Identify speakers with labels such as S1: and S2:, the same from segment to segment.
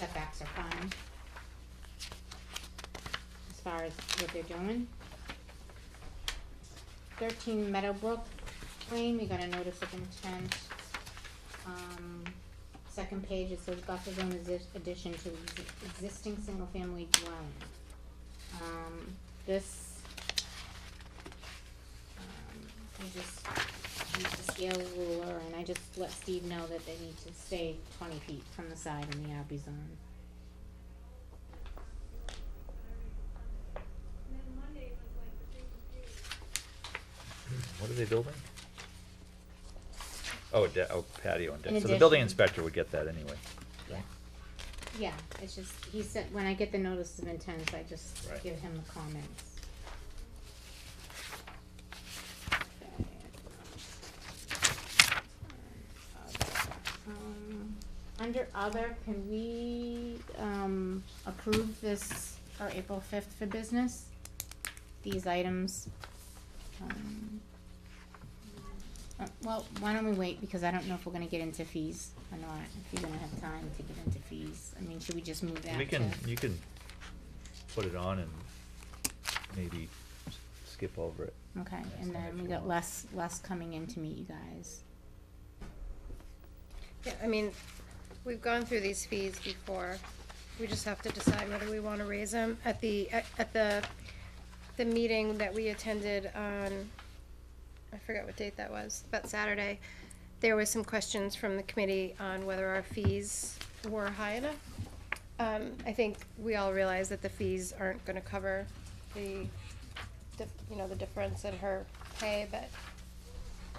S1: setbacks are fine. As far as what they're doing. Thirteen Meadowbrook Lane, we got a notice of intent. Um, second page, it says buffer zone is this addition to ex- existing single-family dwelling. Um, this, um, we just use the scale ruler, and I just let Steve know that they need to stay twenty feet from the side in the RB zone.
S2: What are they building? Oh, a de- oh, patio and deck.
S1: An
S2: So the building
S1: addition.
S2: inspector would get that anyway.
S1: Yeah. Yeah, it's just, he said, when I get the notice of intent, I just
S2: Right.
S1: give him the comments. Um, Under other, can we, um, approve this for April fifth for business? These items, um. uh, Well, why don't we wait, because I don't know if we're gonna get into fees or not, if you're gonna have time to get into fees, I mean, should we just move that
S2: We
S1: to?
S2: can, you can put it on and maybe s- skip over it.
S1: Okay,
S2: Next
S1: and
S2: time
S1: then
S2: if
S1: we
S2: you
S1: got
S2: want.
S1: less, less coming in to meet you guys.
S3: Yeah, I mean, we've gone through these fees before. We just have to decide whether we want to raise them. At the, at at the, the meeting that we attended on, I forgot what date that was, but Saturday, there was some questions from the committee on whether our fees were high enough. Um, I think we all realize that the fees aren't gonna cover the, dif- you know, the difference in her pay, but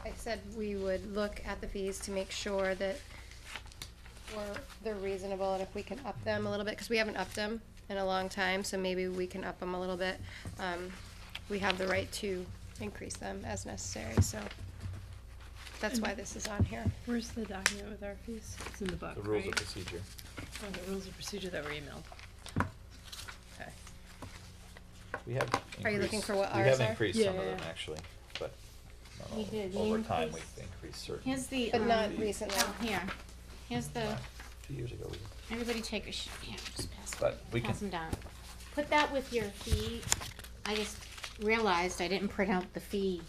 S3: I said we would look at the fees to make sure that we're, they're reasonable and if we can up them a little bit, because we haven't upped them in a long time, so maybe we can up them a little bit. Um, we have the right to increase them as necessary, so that's why this is on here.
S4: Where's the document with our fees? It's in the book, right?
S2: procedure.
S4: Oh, the rules of procedure that were emailed. Okay.
S2: We have.
S3: Are you looking
S2: increased-
S3: for what
S2: We
S3: ours are?
S2: have increased some of
S4: Yeah, yeah,
S2: them,
S4: yeah.
S2: actually, but not
S1: We
S2: all.
S1: did. We
S2: over time, we've
S1: increased-
S2: increased certain.
S1: Here's the,
S3: But
S1: um,
S3: not recently.
S1: oh, here, here's the,
S2: Wow, Two years ago, we,
S1: everybody take a sh- yeah, just pass them,
S2: But we
S1: pass them
S2: can-
S1: down. Put that with your fee, I just realized I didn't print out the fee,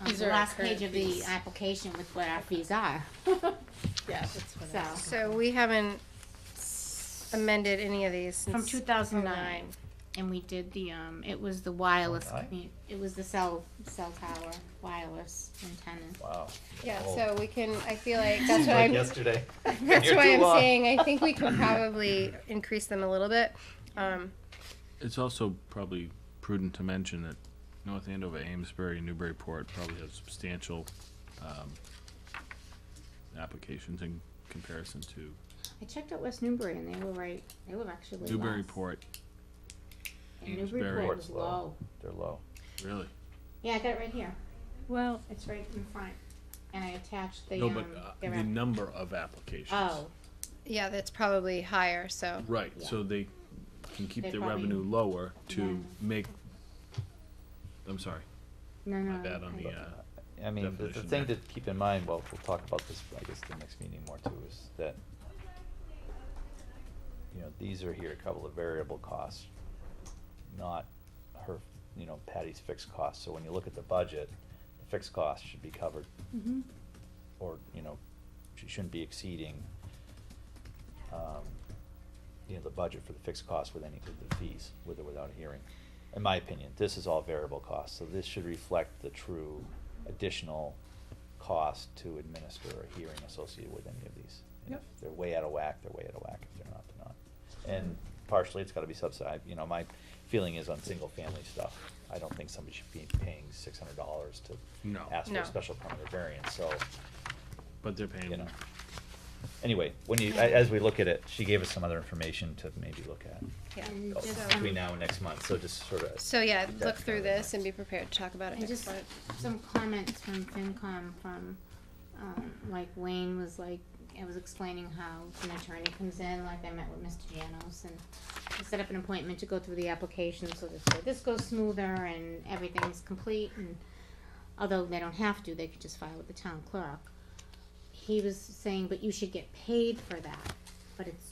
S1: um,
S4: These
S1: the
S4: are our
S1: last
S4: current
S1: page of the
S4: fees.
S1: application with what our fees are.
S4: Yeah, that's what I was.
S1: So,
S3: So we haven't amended any of these
S1: from
S3: since.
S1: two thousand oh nine,
S3: 09.
S1: and we did the, um, it was the wireless,
S2: 09?
S1: commu- it was the cell, cell tower, wireless antenna.
S2: wow.
S3: Yeah,
S2: Oh,
S3: so we can, I feel like, that's
S2: Seems
S3: what
S2: like
S3: I'm,
S2: yesterday.
S3: that's
S2: You're
S3: why
S2: too
S3: I'm
S2: long.
S3: saying, I think we can probably increase them a little bit. Um,
S5: It's also probably prudent to mention that North Andover, Amesbury, and Newburyport probably have substantial, um, applications in comparison to
S1: I checked out West Newbury and they were right, they were actually less.
S5: Newburyport,
S1: And
S5: Amesbury.
S1: Newburyport was
S2: Port's low.
S1: low.
S2: They're low.
S5: really.
S1: Yeah, I got it right here.
S4: Well,
S1: It's right in front. And I attached the,
S5: No,
S1: um,
S5: but, uh,
S1: their
S5: the
S1: app-
S5: number of applications.
S1: Oh,
S3: yeah, that's probably higher, so.
S5: Right,
S1: Yeah.
S5: so they can keep
S1: They
S5: their
S1: probably-
S5: revenue lower
S1: Yeah.
S5: to make, I'm sorry,
S1: no, no.
S5: my bad on the,
S1: okay.
S5: uh,
S2: I mean, the, the
S5: definition
S2: thing to
S5: there.
S2: keep in mind, well, we'll talk about this, I guess, the next meeting more too, is that, you know, these are here, a couple of variable costs, not her, you know, Patty's fixed costs, so when you look at the budget, the fixed costs should be covered,
S4: mm-hmm.
S1: Mhm.
S2: or, you know, she shouldn't be exceeding, um, you know, the budget for the fixed costs with any, with the fees, with or without a hearing. In my opinion, this is all variable costs, so this should reflect the true additional cost to administer a hearing associated with any of these. And if They're way out of whack, they're way out of whack, if they're not, they're not. And partially, it's gotta be subsidized, you know, my feeling is on single-family stuff, I don't think somebody should be paying six hundred dollars to
S5: No.
S2: ask for
S3: No.
S2: a special permit or variance, so,
S5: but they're
S2: you
S5: paying
S2: know. Anyway, when you, a- as we look at it, she gave us some other information to maybe look at
S3: Yeah.
S1: And
S2: oh,
S1: just,
S2: between
S1: um,
S2: now and next month, so just sort of.
S3: So yeah,
S2: Keep that
S3: look through
S2: in mind.
S3: this and be prepared to talk about it
S1: And
S3: next
S1: just
S3: month.
S1: some comments from FinCom from, um, like Wayne was like, I was explaining how an attorney comes in, like I met with Mr. Janos and we set up an appointment to go through the application so that so this goes smoother and everything's complete and although they don't have to, they could just file with the town clerk. He was saying, but you should get paid for that, but it's